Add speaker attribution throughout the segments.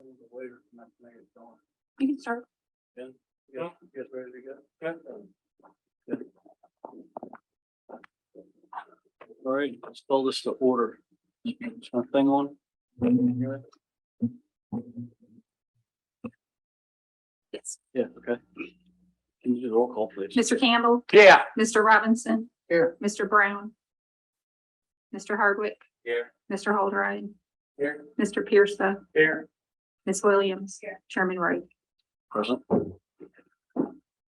Speaker 1: the waiter, and that thing is going,
Speaker 2: You can start.
Speaker 1: you guys, you guys ready to go? Good. All right, let's call this to order. Is my thing on?
Speaker 2: Yes.
Speaker 1: Yeah, okay. Can you do the roll call, please?
Speaker 2: Mr. Campbell,
Speaker 1: Yeah.
Speaker 2: Mr. Robinson,
Speaker 1: Here.
Speaker 2: Mr. Brown, Mr. Hardwick,
Speaker 1: Here.
Speaker 2: Mr. Holdride,
Speaker 1: Here.
Speaker 2: Mr. Pierce,
Speaker 1: Here.
Speaker 2: Ms. Williams, Chairman Wright.
Speaker 1: Present.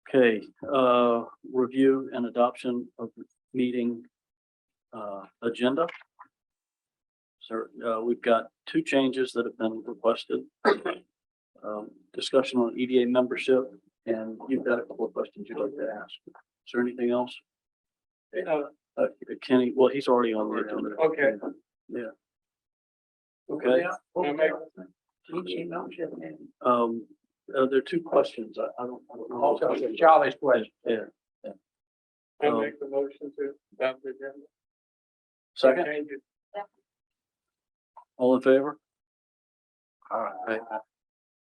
Speaker 1: Okay, uh, review and adoption of meeting, uh, agenda. So, uh, we've got two changes that have been requested. Um, discussion on EDA membership, and you've got a couple of questions you'd like to ask. Is there anything else? Uh, Kenny, well, he's already on the agenda.
Speaker 3: Okay.
Speaker 1: Yeah. Okay. E
Speaker 3: I make-
Speaker 1: Um, uh, there are two questions. I, I don't. I don't know.
Speaker 3: Charlie's question.
Speaker 1: Yeah.
Speaker 3: I
Speaker 1: Um,
Speaker 3: make the motion to adopt the agenda.
Speaker 1: Second,
Speaker 3: Change it.
Speaker 1: all in favor? All right.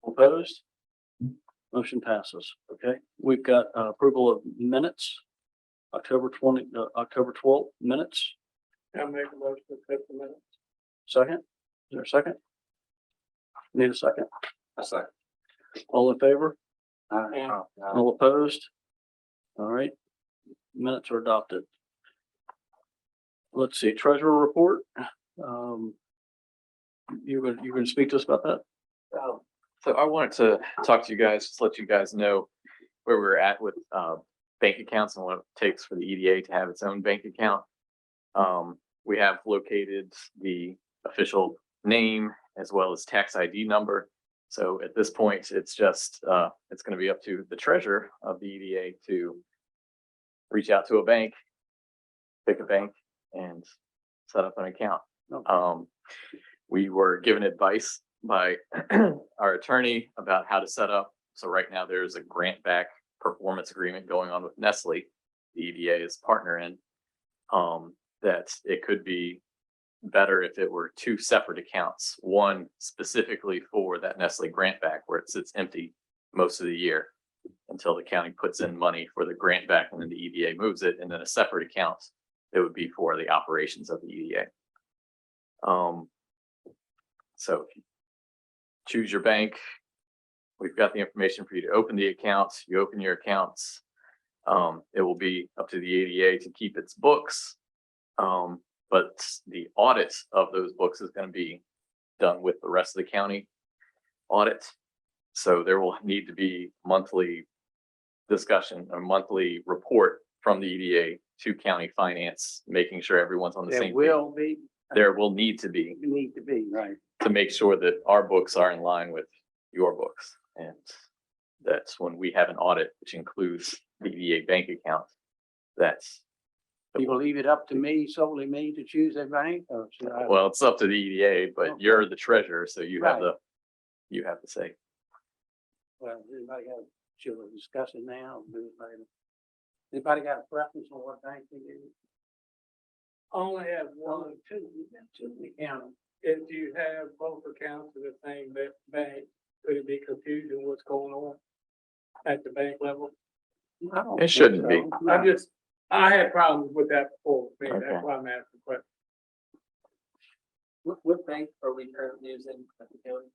Speaker 1: Opposed? Motion passes. Okay, we've got uh, approval of minutes. October twenty, uh, October twelfth minutes.
Speaker 3: I make the motion to accept the minutes.
Speaker 1: Second, is there a second? Need a second?
Speaker 4: A second.
Speaker 1: All in favor?
Speaker 3: Aye.
Speaker 1: All opposed? All right, minutes are adopted. Let's see, treasurer report. Um, you gonna, you gonna speak to us about that?
Speaker 4: Um, So I wanted to talk to you guys, just let you guys know where we're at with uh bank accounts and what it takes for the EDA to have its own bank account. Um, we have located the official name as well as tax ID number. So at this point, it's just uh, it's gonna be up to the treasurer of the EDA to reach out to a bank, pick a bank and set up an account.
Speaker 1: Okay.
Speaker 4: Um, we were given advice by our attorney about how to set up. So right now there's a grant back performance agreement going on with Nestle, the EDA is partner in. Um, that it could be better if it were two separate accounts, one specifically for that Nestle grant back where it sits empty most of the year until the county puts in money for the grant back and then the EDA moves it, and then a separate account that would be for the operations of the E EDA. Um, so choose your bank. We've got the information for you to open the accounts. You open your accounts. Um, it will be up to the ADA to keep its books. Um, but the audit of those books is gonna be done with the rest of the county audit. So there will need to be monthly discussion, a monthly report from the EDA to county finance, making sure everyone's on the
Speaker 3: There
Speaker 4: same. page.
Speaker 3: will be,
Speaker 4: There will need to be
Speaker 3: need to be, right.
Speaker 4: to make sure that our books are in line with your books. And that's when we have an audit, which includes the EDA bank account. That's,
Speaker 3: You will leave it up to me, solely me, to choose a bank or should I?
Speaker 4: well, it's up to the EDA, but you're the treasurer, so you have the, you have to say.
Speaker 3: Well, anybody got, should we discuss it now? or do it later? Anybody got a preference on what bank they do? Only have one. Two, we got two, we count 'em.
Speaker 5: if you have both accounts of the same ba- bank, could it be confusion what's going on at the bank level?
Speaker 3: I don't
Speaker 4: It
Speaker 3: think
Speaker 4: shouldn't be.
Speaker 3: so.
Speaker 5: I
Speaker 3: No.
Speaker 5: just, I had problems with that before, maybe that's
Speaker 4: Okay.
Speaker 5: why I'm asking the question.
Speaker 6: What, what bank are we currently using at the county?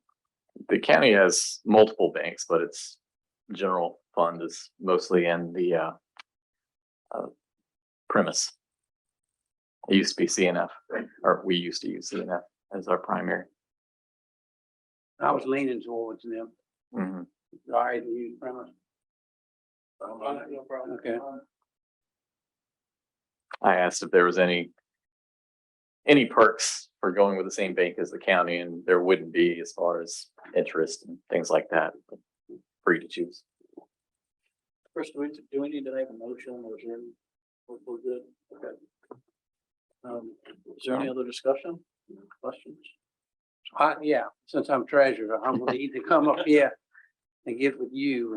Speaker 4: The county has multiple banks, but its general fund is mostly in the, uh, uh, premise. It used to be CNF, or we used to use CNF as our primary.
Speaker 3: I was leaning towards them.
Speaker 4: Mhm.
Speaker 3: All right, you premise.
Speaker 5: No problem.
Speaker 3: Okay.
Speaker 4: I asked if there was any any perks for going with the same bank as the county, and there wouldn't be as far as interest and things like that. Free to choose.
Speaker 1: Chris, do we, do we need to make a motion or is there, we're, we're good? Okay. Um, is there any other discussion, questions?
Speaker 3: I, yeah, since I'm treasurer, I'm gonna either come up here and get with you